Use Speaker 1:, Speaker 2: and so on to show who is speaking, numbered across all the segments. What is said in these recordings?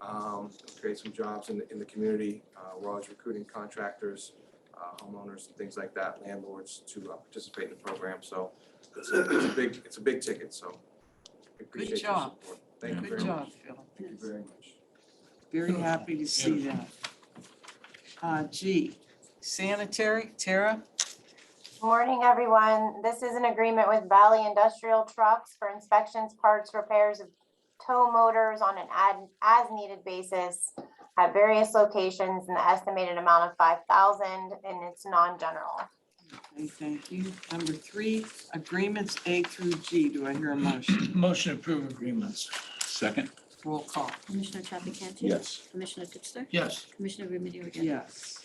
Speaker 1: um, create some jobs in, the- in the community. Uh, We're always recruiting contractors, uh, homeowners, and things like that, landlords to uh, participate in the program. So it's a it's a big, it's a big ticket, so I appreciate your
Speaker 2: job.
Speaker 1: support. Thank you
Speaker 2: Good
Speaker 1: very much.
Speaker 2: job, Phil.
Speaker 1: Thank you very much.
Speaker 2: Very happy to see that. Uh, G, sanitary, Tara?
Speaker 3: Morning, everyone. This is an agreement with Valley Industrial Trucks for inspections, parts, repairs of tow motors on an ad, as needed basis at various locations and the estimated amount of five thousand and it's non-general.
Speaker 2: Okay, thank you. Number three, agreements A through G. Do I hear a motion?
Speaker 4: Motion to approve agreements. Second.
Speaker 2: Roll call.
Speaker 5: Commissioner Trafficante? Commissioner Ditzler?
Speaker 4: Yes.
Speaker 5: Commissioner Remedy Agati?
Speaker 2: Yes.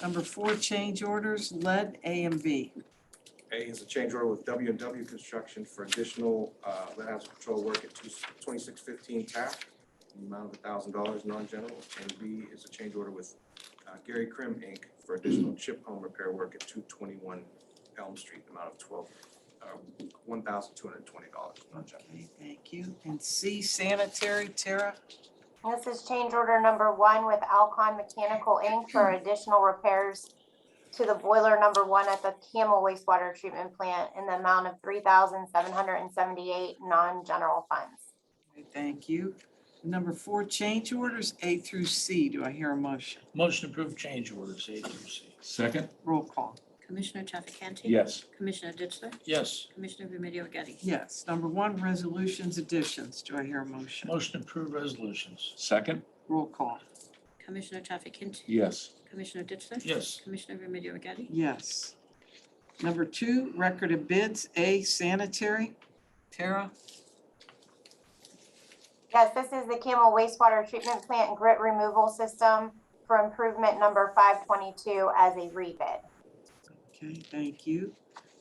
Speaker 2: Number four, change orders, lead A and B.
Speaker 1: A is a change order with W and W Construction for additional uh, lead house control work at 2615 Taft, in the amount of $1,000 non-general. And B is a change order with uh, Gary Krim, Inc. for additional chip home repair work at 221 Elm Street, in the amount of 12, uh, $1,220 non-general.
Speaker 2: Okay, thank you. And C, sanitary, Tara?
Speaker 3: This is change order number one with Alcon Mechanical Inc. for additional repairs to the boiler number one at the Camel wastewater treatment plant in the amount of three thousand seven hundred and seventy-eight non-general funds.
Speaker 2: Okay, Thank you. Number four, change orders A through C. Do I hear a motion?
Speaker 4: Motion to approve change orders A through C.
Speaker 6: Second?
Speaker 2: Roll call.
Speaker 5: Commissioner Trafficante?
Speaker 6: Yes.
Speaker 5: Commissioner Ditzler?
Speaker 4: Yes.
Speaker 5: Commissioner Remedy Agati?
Speaker 2: Yes. Number one, resolutions additions. Do I hear a motion?
Speaker 4: Motion to approve resolutions.
Speaker 6: Second?
Speaker 2: Roll call.
Speaker 5: Commissioner Trafficante?
Speaker 6: Yes.
Speaker 5: Commissioner Ditzler?
Speaker 4: Yes.
Speaker 5: Commissioner Remedy Agati?
Speaker 2: Yes. Number two, record of bids, A, sanitary. Tara?
Speaker 3: Yes, this is the Camel wastewater treatment plant grit removal system for improvement number five twenty-two as a rebid.
Speaker 2: Okay, thank you.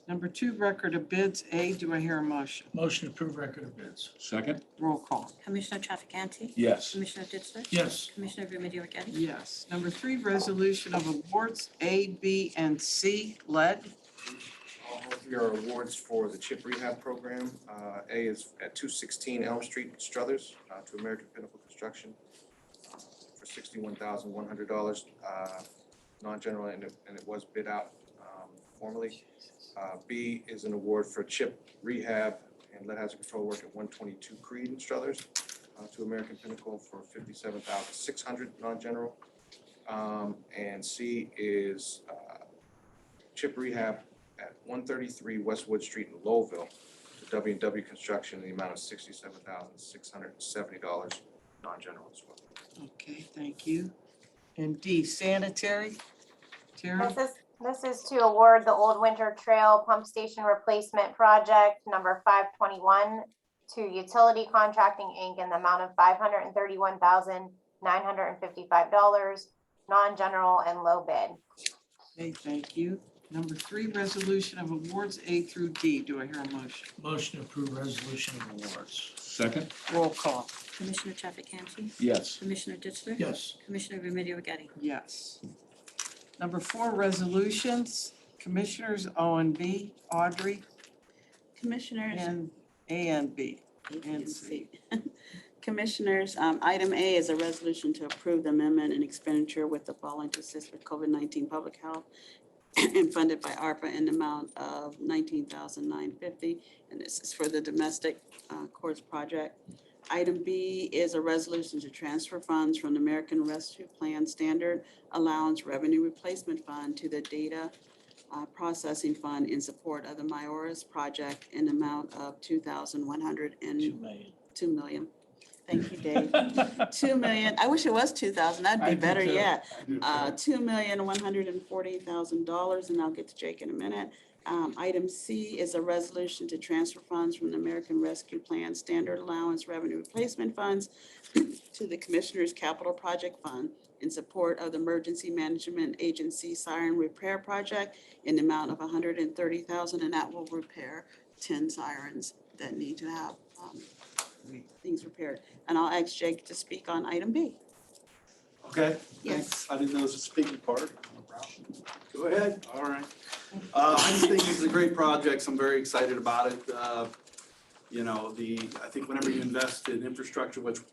Speaker 2: Number two, record of bids, A. Do I hear a motion?
Speaker 4: Motion to approve record of bids.
Speaker 6: Second?
Speaker 2: Roll call.
Speaker 5: Commissioner Trafficante?
Speaker 6: Yes.
Speaker 5: Commissioner Ditzler?
Speaker 4: Yes.
Speaker 5: Commissioner Remedy Agati?
Speaker 2: Yes. Number three, resolution of awards, A, B, and C, lead.
Speaker 1: All three are awards for the chip rehab program. Uh, A is at 216 Elm Street, Struthers, uh, to American Pinnacle Construction uh, for $61,100, uh, non-general, and it and it was bid out um, formally. Uh, B is an award for chip rehab and lead hazard control work at 122 Creed in Struthers uh, to American Pinnacle for $57,600, non-general. Um, And C is uh, chip rehab at one thirty-three Westwood Street in Lowville to W and W Construction in the amount of sixty-seven thousand, six hundred and seventy dollars, non-general as well.
Speaker 2: Okay, thank you. And D, sanitary. Tara?
Speaker 3: This is, this is to award the Old Winter Trail Pump Station Replacement Project number five twenty-one to Utility Contracting, Inc. in the amount of five hundred and thirty-one thousand, nine hundred and fifty-five dollars, non-general and low bid.
Speaker 2: Okay, thank you. Number three, resolution of awards, A through D. Do I hear a motion?
Speaker 4: Motion to approve resolution of awards.
Speaker 6: Second?
Speaker 2: Roll call.
Speaker 5: Commissioner Trafficante?
Speaker 6: Yes.
Speaker 5: Commissioner Ditzler?
Speaker 4: Yes.
Speaker 5: Commissioner Remedy Agati?
Speaker 2: Yes. Number four, resolutions, Commissioners O and B, Audrey,
Speaker 7: Commissioners,
Speaker 2: and A and B.
Speaker 7: and
Speaker 2: C.
Speaker 7: Commissioners, um, item A is a resolution to approve the amendment and expenditure with the following to assist with COVID-19 public health and funded by ARPA in the amount of $19,950, and this is for the domestic uh, courts project. Item B is a resolution to transfer funds from the American Rescue Plan Standard Allowance Revenue Replacement Fund to the Data uh, Processing Fund in support of the Myoris project in the amount of 2100 and
Speaker 4: Two million.
Speaker 7: 2 million. Thank you, Dave. 2 million, I wish it was 2,000, that'd
Speaker 4: I
Speaker 7: be
Speaker 4: do
Speaker 7: better
Speaker 4: too.
Speaker 7: yet. Uh, $2,140,000, and I'll get to Jake in a minute. Um, Item C is a resolution to transfer funds from the American Rescue Plan Standard Allowance Revenue Replacement Funds to the Commissioner's Capital Project Fund in support of the Emergency Management Agency Siren Repair Project in the amount of $130,000, and that will repair 10 sirens that need to have um, things repaired. And I'll ask Jake to speak on item B.
Speaker 8: Okay.
Speaker 7: Yes.
Speaker 8: I didn't know it was a speaking part. Go ahead. All right. Uh, I just think it's a great project. I'm very excited about it. Uh, You know, the, I think whenever you invest in infrastructure, which